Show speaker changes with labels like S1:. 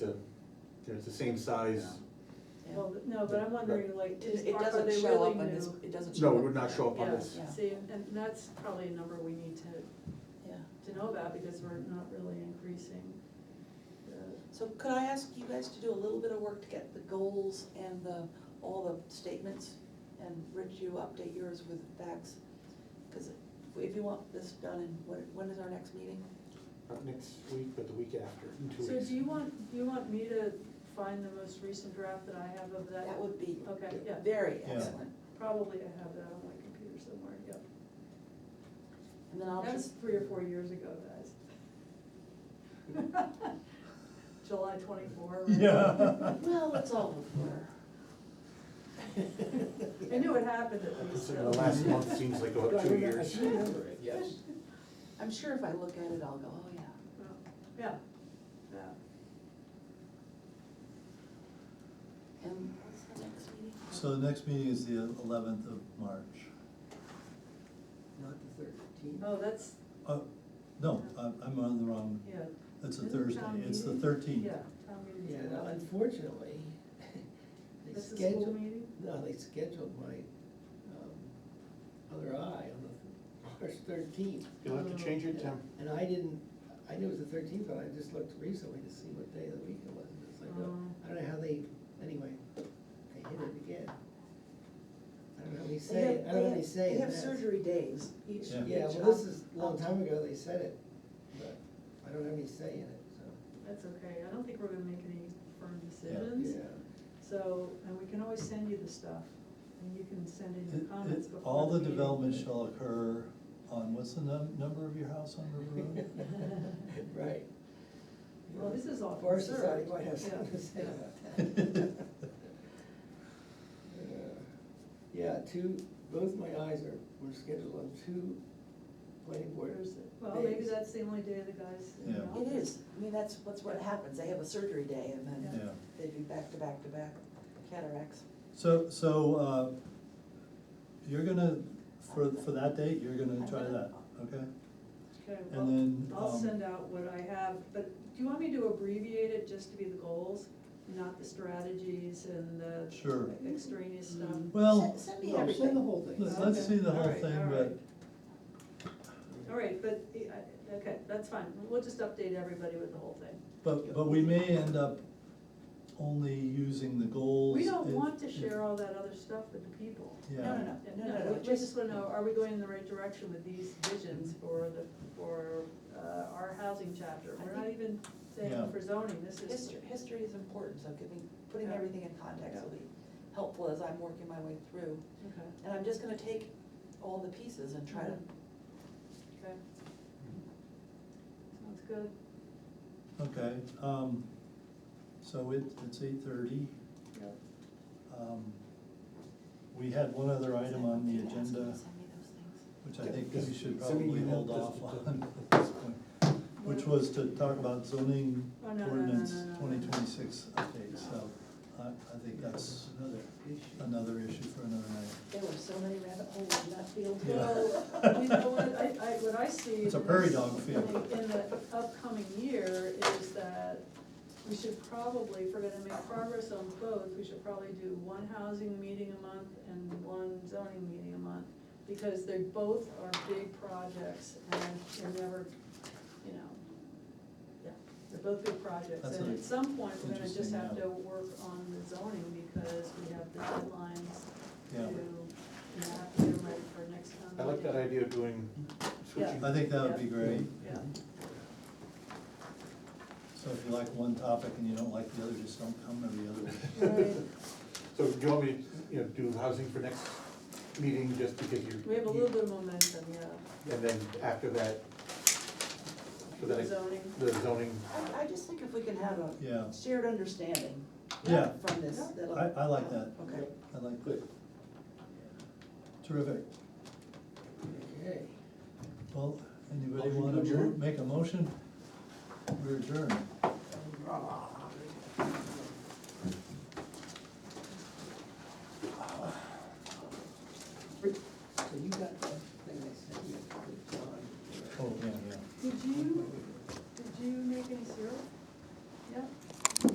S1: the, you know, it's the same size.
S2: Yeah.
S3: Well, no, but I'm wondering, like, is,
S2: It, it
S3: are are
S2: doesn't
S3: they
S2: show
S3: really
S2: up on this,
S3: new?
S2: it doesn't show
S1: No,
S2: up.
S1: it would not show up on
S3: Yeah,
S1: this.
S2: Yeah.
S3: see, and that's probably a number we need to,
S2: Yeah,
S3: to know about, because we're not really increasing the,
S2: so could I ask you guys to do a little bit of work to get the goals and the, all the statements? And Rich, you update yours with facts, because if you want this done, and when, when is our next meeting?
S1: Not next week, but the week after, in two
S3: so
S1: weeks.
S3: do you want, do you want me to find the most recent draft that I have of that?
S2: That would be
S4: Oh,
S3: Okay, yeah,
S2: very
S5: Yeah.
S2: excellent,
S3: probably I have that on my computer somewhere, yep.
S2: and then I'll
S3: That was
S2: just,
S3: three or four years ago, guys. July twenty-four. right?
S5: Yeah.
S2: well, it's all before.
S3: I knew it happened at least.
S1: Considering the
S3: so-
S1: last month seems like about two years.
S5: yes.
S2: I'm sure if I look at it, I'll go, oh, yeah.
S3: Well, Yeah, yeah.
S2: And what's the next meeting?
S5: So the next meeting is the eleventh of March.
S4: Not the thirteenth.
S3: Oh, that's,
S5: Uh, no, I'm, I'm on the wrong,
S3: yeah.
S5: it's a
S3: Isn't town
S5: Thursday, it's the
S3: meeting-
S5: thirteenth.
S3: Yeah, town meeting's
S4: Yeah,
S3: the
S4: no,
S3: 11th.
S4: unfortunately, they
S3: That's the school
S4: scheduled,
S3: meeting?
S4: no, they scheduled my, um, other eye on the March thirteenth.
S1: You'll have to change it, Tim.
S4: And I didn't, I knew it was the thirteenth, but I just looked recently to see what day of the week it was, and it's like, well, I don't know how they, anyway, they hit it again. I don't know how they
S2: They
S4: say,
S2: have-
S4: it. I don't know
S2: they
S4: how they
S2: have-
S4: say it.
S2: They have
S4: that's-
S2: surgery days each.
S5: Yeah.
S4: Yeah,
S2: each
S4: well, this
S2: up-
S4: is, a long
S2: up-
S4: time ago they said it, but I don't have any say in it, so,
S3: That's okay, I don't think we're gonna make any firm
S4: yeah.
S3: decisions, so, and we can always send you the stuff, and you can send in your
S5: It-
S3: comments
S5: it-
S3: before.
S5: All the
S3: meeting.
S5: development shall occur on, what's the num- number of your house on River Road?
S4: Right.
S3: Well, this is all
S4: Forest Society
S3: conserved.
S4: might have something
S3: Yeah,
S4: to say
S3: yeah.
S4: about that. Yeah, two, both my eyes are, were scheduled on two planning board.
S3: There's- Well, maybe
S4: days.
S3: that's the only day the guys. in the
S5: Yeah.
S2: It
S3: office.
S2: is, I mean, that's, that's what happens, they have a surgery day and
S3: Yeah.
S2: then
S5: Yeah,
S2: they do back to back to back cataracts.
S5: so, so, uh, you're gonna, for, for that date, you're gonna try that, okay?
S3: Okay,
S5: And
S3: well,
S5: then,
S3: I'll
S5: um,
S3: send out what I have, but do you want me to abbreviate it just to be the goals, not the strategies and the
S5: Sure.
S3: extraneous stuff?
S2: Mm.
S5: Well,
S2: Send- Send me
S4: No, send the
S2: everything.
S4: whole thing.
S5: let's let's see the
S3: Okay, all
S5: whole
S3: right,
S5: thing,
S3: all
S5: but
S3: right. All right, but, uh, I- okay, that's fine, we'll just update everybody with the whole thing.
S5: But, but we may end up only using the goals.
S3: We don't
S5: if-
S3: want to
S5: if-
S3: share all that other stuff with the people.
S2: No, no,
S5: Yeah,
S2: no,
S3: And
S2: no, no, no,
S3: we just wanna know, are we going in the right direction with these visions for the, for, uh, our housing chapter? We're not even
S5: Yeah.
S3: saying for zoning, this is.
S2: History, history is important, so giving, putting
S3: Yeah.
S2: everything in context will be helpful as I'm working my way through.
S3: Okay,
S2: And I'm just gonna take all the pieces and try to,
S3: okay. Sounds good.
S5: okay, um, so it, it's eight thirty. Um,
S3: Yep.
S5: We had one other item on
S2: Can I ask
S5: the
S2: you to
S5: agenda,
S2: send me those things?
S5: which I think
S1: Yes,
S5: we should
S1: send me
S5: probably
S1: your
S5: hold
S1: help
S5: off
S1: just-
S5: on at this point, which was to talk about zoning
S3: Oh, no, no, no,
S5: ordinance
S3: no, no, no.
S5: twenty twenty-six update, so I, I think that's another, another issue for another night.
S2: There were so many rabbit holes in that field.
S5: Yeah.
S3: Well, you know, what I, I, what I see.
S5: It's a
S3: in
S5: prairie
S3: this-
S5: dog field.
S3: in the- In the upcoming year is that we should probably, if we're gonna make progress on both, we should probably do one housing meeting a month and one zoning meeting a month. Because they both are big projects and they're never, you know, yeah, they're both big projects.
S5: That's
S3: And
S5: an
S3: at some point, we're gonna just
S5: interesting
S3: have to
S5: note.
S3: work on the zoning because we have the deadlines to,
S5: Yeah.
S3: you know, have to get ready for next time.
S1: I like that idea of doing, switching.
S5: I think that would be
S3: Yeah.
S5: great.
S3: Yeah,
S5: So if you like one topic and you don't like the other, just don't come every other week.
S3: Right.
S1: So do you want me to, you know, do housing for next meeting just because you.
S3: we have a little bit of momentum, yeah,
S1: And then after that, so that
S3: the
S1: I-
S3: zoning.
S1: the zoning,
S2: I, I just think if we can have a
S5: Yeah,
S2: shared understanding
S5: yeah,
S2: from this,
S3: Yeah.
S2: that'll.
S5: I, I like that,
S2: Okay.
S5: I like that,
S1: good.
S5: terrific.
S4: Okay.
S5: Well, anybody
S1: Motion to
S5: wanna mo-
S1: adjourn?
S5: make a motion? We're adjourned.
S4: Ah.
S5: Oh.